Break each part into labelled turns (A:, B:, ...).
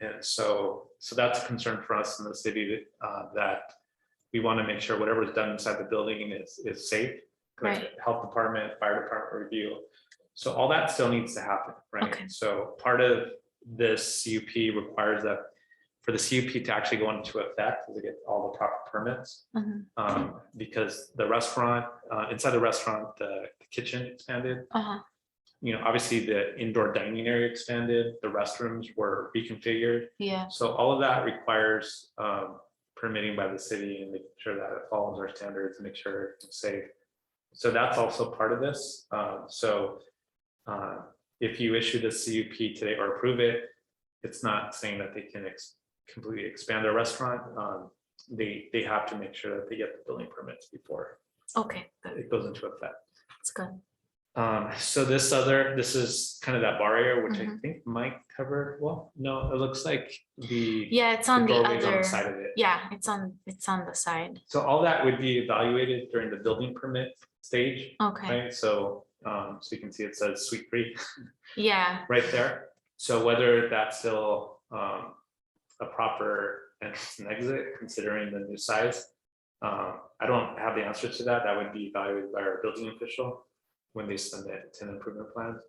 A: And so, so that's a concern for us in the city that, uh, that we want to make sure whatever is done inside the building is, is safe. like
B: Right.
A: Health department, fire department review. So all that still needs to happen,
B: Okay.
A: right? So part of this CUP requires that for the CUP to actually go into effect, to get all the proper permits.
B: Mhm.
A: Um, because the restaurant, uh, inside the restaurant, the kitchen expanded,
B: Uh-huh.
A: you know, obviously the indoor dining area expanded, the restrooms were reconfigured.
B: Yeah,
A: So all of that requires um, permitting by the city and making sure that it follows our standards, make sure it's safe. So that's also part of this. Um, So uh, if you issue the CUP today or approve it, it's not saying that they can ex- completely expand their restaurant. Um, They, they have to make sure that they get the building permits before
B: okay, good,
A: it goes into effect.
B: that's good.
A: Um, so this other, this is kind of that bar area, which I
B: Mhm.
A: think might cover, well, no, it looks like the.
B: Yeah, it's
A: the
B: on the
A: doorway's on
B: other,
A: Side of it.
B: yeah, it's on, it's on the side.
A: So all that would be evaluated during the building permit stage,
B: Okay,
A: right? So, um, so you can see it says suite three
B: yeah,
A: right there. So whether that's still, um, a proper entrance and exit considering the new size. Um, I don't have the answer to that. That would be evaluated by our building official when they send it to an improvement plan.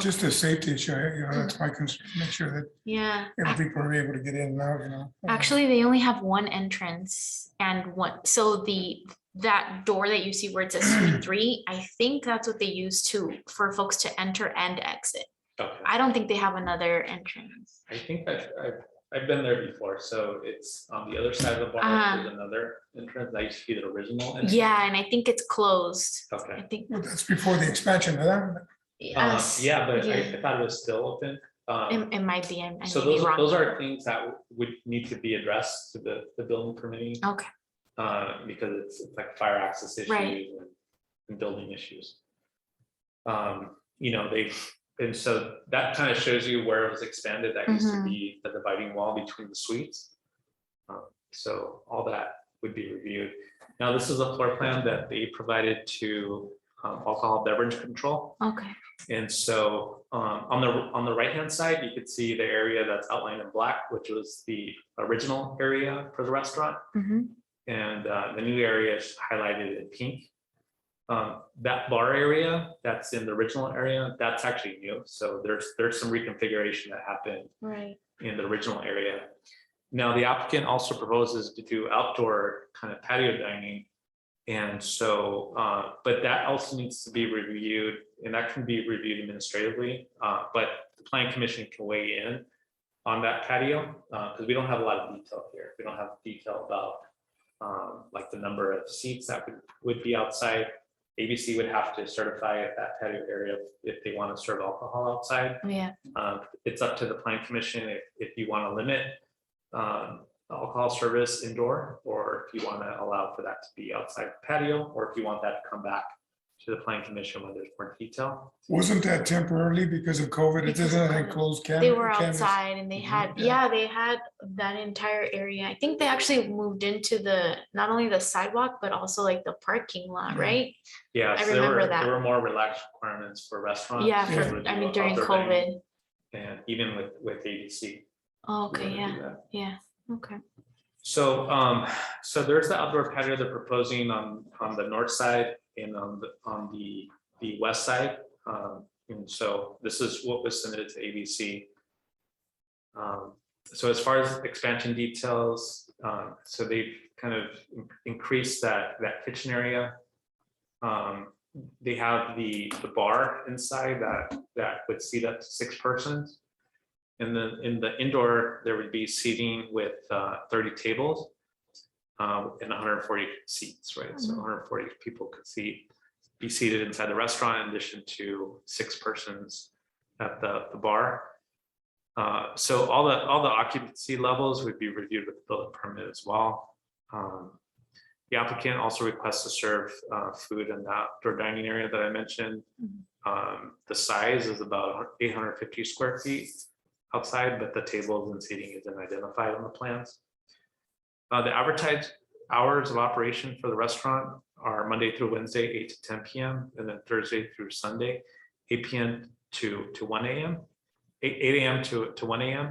C: Just
B: okay, Mm.
C: a safety issue, you know, that's my concern, make sure
B: yeah.
C: that
B: ac-
C: everything we're able to get in and out, you know.
B: Actually, they only have one entrance and one, so the, that door that you see where it says suite three, I think that's what they use to, for folks to enter and exit.
A: Okay.
B: I don't think they have another entrance.
A: I think that I've, I've been there before, so it's on the other side of the bar,
B: Uh-huh.
A: there's another entrance, I used to be the original. entrance.
B: Yeah, and I think it's closed, I
A: Okay,
B: think.
C: Well, That's before the expansion, but that,
A: Um,
B: us-
A: yeah, but I,
B: yeah,
A: I thought it was still open. Um,
B: It, it might be, I I may
A: so
B: be
A: those,
B: wrong.
A: those are things that would need to be addressed to the, the building permitting,
B: Okay,
A: uh, because it's it's like fire access issues
B: Right.
A: and, and building issues. Um, you know, they, and so that kind of shows you where it was expanded, that used to
B: Mhm.
A: be the dividing wall between the suites. Um, So all that would be reviewed. Now, this is a floor plan that they provided to um, alcohol beverage control.
B: okay,
A: And so um, on the, on the right-hand side, you could see the area that's outlined in black, which was the original area for the restaurant.
B: mhm,
A: And uh, the new area is highlighted in pink. Um, That bar area that's in the original area, that's actually new. So there's, there's some reconfiguration that happened
B: right,
A: in the original area. Now, the applicant also proposes to do outdoor kind of patio dining. And so, uh, but that also needs to be reviewed, and that can be reviewed administratively, uh, but the planning commission can weigh in on that patio, because we don't have a lot of detail here. We don't have detail about um, like the number of seats that would, would be outside. ABC would have to certify if that patio area, if they want to serve alcohol outside.
B: yeah,
A: Uh, It's up to the planning commission if, if you want to limit um, alcohol service indoor, or if you want to allow for that to be outside patio, or if you want that to come back to the planning commission when there's more detail.
C: wasn't that temporarily because of COVID, it
B: Because
C: doesn't
B: of
C: have any
B: COVID.
C: closed
B: they
C: canvas.
B: were outside and they
A: Mhm,
B: had,
C: Mm-hmm, yeah.
B: yeah, they had that entire area, I think they actually moved into the, not only the sidewalk, but also like the parking lot,
C: Yeah.
B: right?
A: Yeah.
B: I
A: so there were-
B: remember that.
A: There were more relaxed requirements for restaurants.
B: Uh, Yeah,
A: to
B: for- I
A: do
B: mean during
A: outdoor dining,
B: COVID,
A: And even with, with ABC.
B: Oh,
A: we
B: okay,
A: wanna
B: yeah,
A: do that.
B: yeah, okay,
A: So, um, so there's the outdoor patio they're proposing on, on the north side and on the, on the, the west side. Um, and so this is what was submitted to ABC. Um, so as far as expansion details, um, so they've kind of in- increased that, that kitchen area. Um, they have the, the bar inside that, that would seat up to six persons. And then in the indoor, there would be seating with uh, thirty tables. um, And hundred and forty seats, right? So
B: Mhm.
A: hundred and forty people could seat, be seated inside the restaurant in addition to six persons at the, the bar. Uh, So all the, all the occupancy levels would be reviewed with the building permit as well. Um, The applicant also requests to serve uh, food in the outdoor dining area that I mentioned.
B: Mhm.
A: Um, The size is about eight hundred fifty square feet outside, but the tables and seating isn't identified on the plans. Uh, The advertised hours of operation for the restaurant are Monday through Wednesday, eight to ten PM, and then Thursday through Sunday, eight PM to, to one AM, eight, eight AM to, to one AM.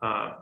A: Uh,